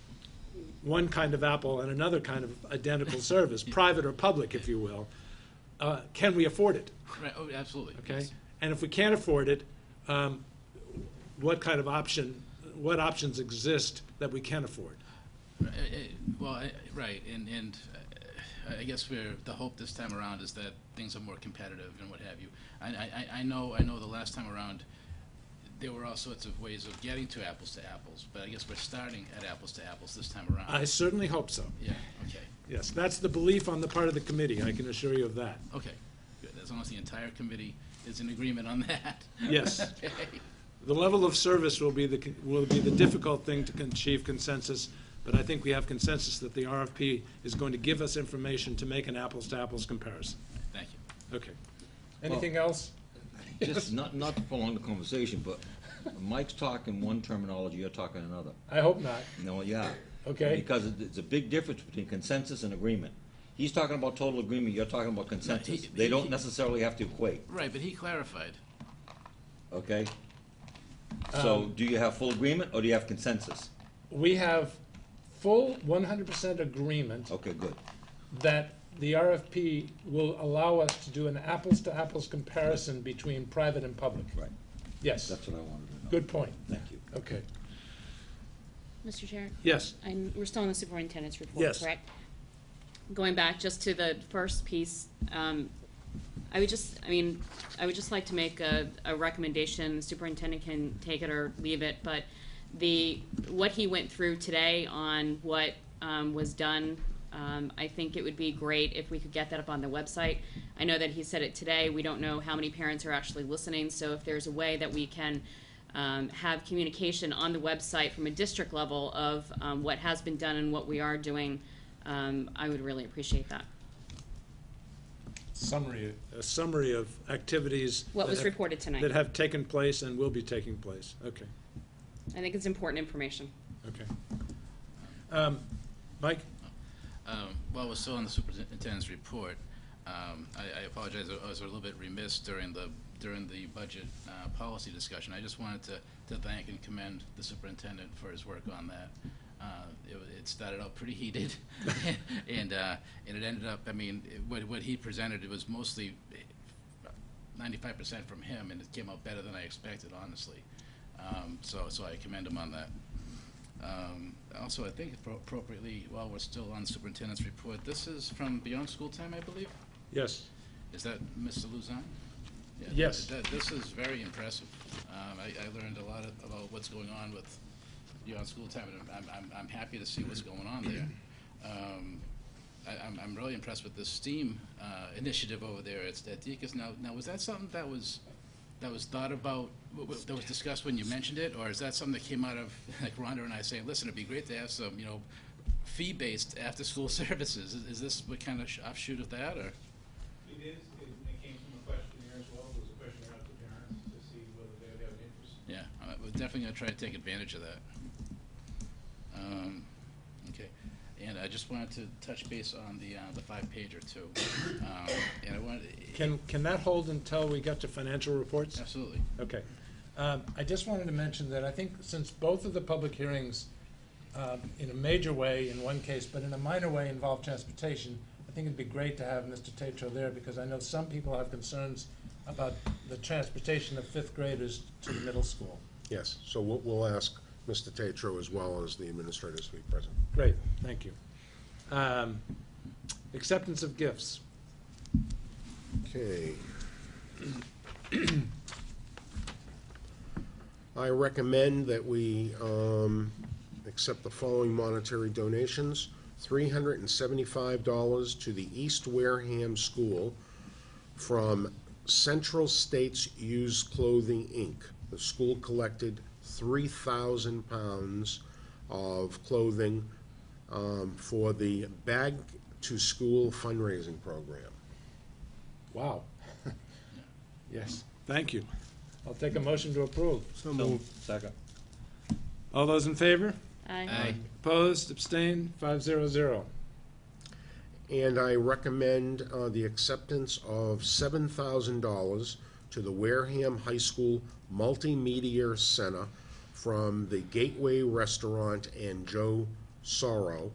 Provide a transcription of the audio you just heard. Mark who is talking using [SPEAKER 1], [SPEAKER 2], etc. [SPEAKER 1] one kind of apple and another kind of identical service, private or public, if you will, uh, can we afford it?
[SPEAKER 2] Right, oh, absolutely.
[SPEAKER 1] Okay?
[SPEAKER 2] yes.
[SPEAKER 1] And if we can't afford it, um, what kind of option, what options exist that we can afford?
[SPEAKER 2] Uh, uh, Well, I- right, and, and uh, I guess we're, the hope this time around is that things are more competitive and what have you. I, I, I- I know, I know the last time around, there were all sorts of ways of getting to apples to apples, but I guess we're starting at apples to apples this time around.
[SPEAKER 1] I certainly hope so.
[SPEAKER 2] Yeah, okay,
[SPEAKER 1] Yes, that's the belief on the part of the committee, I can assure you of that.
[SPEAKER 2] okay, good, as long as the entire committee is in agreement on that.
[SPEAKER 1] Yes.
[SPEAKER 2] Okay.
[SPEAKER 1] The level of service will be the, will be the difficult thing to con- achieve consensus, but I think we have consensus that the RFP is going to give us information to make an apples-to-apples comparison.
[SPEAKER 2] Thank you.
[SPEAKER 1] Okay. Anything else?
[SPEAKER 3] Just not, not to prolong the conversation, but Mike's talking one terminology, you're talking another.
[SPEAKER 1] I hope not.
[SPEAKER 3] No, yeah.
[SPEAKER 1] Okay.
[SPEAKER 3] Because it- it's a big difference between consensus and agreement. He's talking about total agreement, you're talking about consensus. They don't necessarily have to equate,
[SPEAKER 2] Right, but he clarified.
[SPEAKER 3] okay? So do you have full agreement or do you have consensus?
[SPEAKER 1] We have full one hundred percent agreement
[SPEAKER 3] Okay, good.
[SPEAKER 1] that the RFP will allow us to do an apples-to-apples comparison between private and public.
[SPEAKER 3] Right.
[SPEAKER 1] Yes,
[SPEAKER 3] That's what I wanted to know.
[SPEAKER 1] good point.
[SPEAKER 3] Thank you.
[SPEAKER 1] Okay.
[SPEAKER 4] Mr. Chair,
[SPEAKER 1] Yes.
[SPEAKER 4] I'm, we're still on the superintendent's report,
[SPEAKER 1] Yes.
[SPEAKER 4] correct? Going back just to the first piece, um, I would just, I mean, I would just like to make a, a recommendation, superintendent can take it or leave it, but the, what he went through today on what, um, was done, um, I think it would be great if we could get that up on the website. I know that he said it today, we don't know how many parents are actually listening, so if there's a way that we can, um, have communication on the website from a district level of, um, what has been done and what we are doing, um, I would really appreciate that.
[SPEAKER 1] Summary. A summary of activities.
[SPEAKER 4] What
[SPEAKER 1] that
[SPEAKER 4] was
[SPEAKER 1] have-
[SPEAKER 4] reported tonight.
[SPEAKER 1] That have taken place and will be taking place. Okay,
[SPEAKER 4] I think it's important information.
[SPEAKER 1] okay. Um, Mike?
[SPEAKER 2] Um, While we're still on the superintendent's report, um, I I apologize, I was a little bit remiss during the, during the budget uh, policy discussion. I just wanted to, to thank and commend the superintendent for his work on that. Uh, It wa- it started out pretty heated, and, uh, and it ended up, I mean, it- what, what he presented, it was mostly ninety-five percent from him, and it came out better than I expected, honestly. Um, So, so I commend him on that. Um, Also, I think appro- appropriately, while we're still on superintendent's report, this is from Beyond School Time, I believe?
[SPEAKER 1] Yes.
[SPEAKER 2] Is that Mr. Luzon? Yeah,
[SPEAKER 1] Yes.
[SPEAKER 2] that- This is very impressive. Um, I I learned a lot of- about what's going on with Beyond School Time, and I'm- I'm I'm happy to see what's going on there. Um, I- I'm I'm really impressed with the STEAM uh, initiative over there at at Deacon's. Now, now, was that something that was, that was thought about, w- w- that was discussed when you mentioned it? Or is that something that came out of, like Rhonda and I saying, listen, it'd be great to have some, you know, fee-based after-school services? Is- Is this what kind of sh- offshoot of that, or?
[SPEAKER 5] It is, it it came from a questionnaire as well, it was a questionnaire out to parents to see whether they would have an interest.
[SPEAKER 2] Yeah, uh, we're definitely gonna try to take advantage of that. Um, okay, and I just wanted to touch base on the, uh, the five pager too. Um, and I wanted,
[SPEAKER 1] Can, can that hold until we get to financial reports?
[SPEAKER 2] absolutely,
[SPEAKER 1] Okay. Um, I just wanted to mention that I think since both of the public hearings, um, in a major way in one case, but in a minor way involve transportation, I think it'd be great to have Mr. Tatro there because I know some people have concerns about the transportation of fifth graders to the middle school.
[SPEAKER 6] Yes, so we'll, we'll ask Mr. Tatro as well as the administrators to be present.
[SPEAKER 1] Great, thank you. Um, Acceptance of gifts.
[SPEAKER 6] Okay. I recommend that we um, accept the following monetary donations. $375 to the East Wareham School from Central States Used Clothing, Inc. The school collected 3,000 pounds of clothing um, for the Bag to School fundraising program.
[SPEAKER 1] Wow. Yes. Thank you. I'll take a motion to approve.
[SPEAKER 6] So
[SPEAKER 3] Second.
[SPEAKER 1] All those in favor?
[SPEAKER 2] aye,
[SPEAKER 1] Opposed, abstained, five zero zero.
[SPEAKER 6] And I recommend uh, the acceptance of $7,000 to the Wareham High School Multimedia Center from the Gateway Restaurant and Joe Sorrow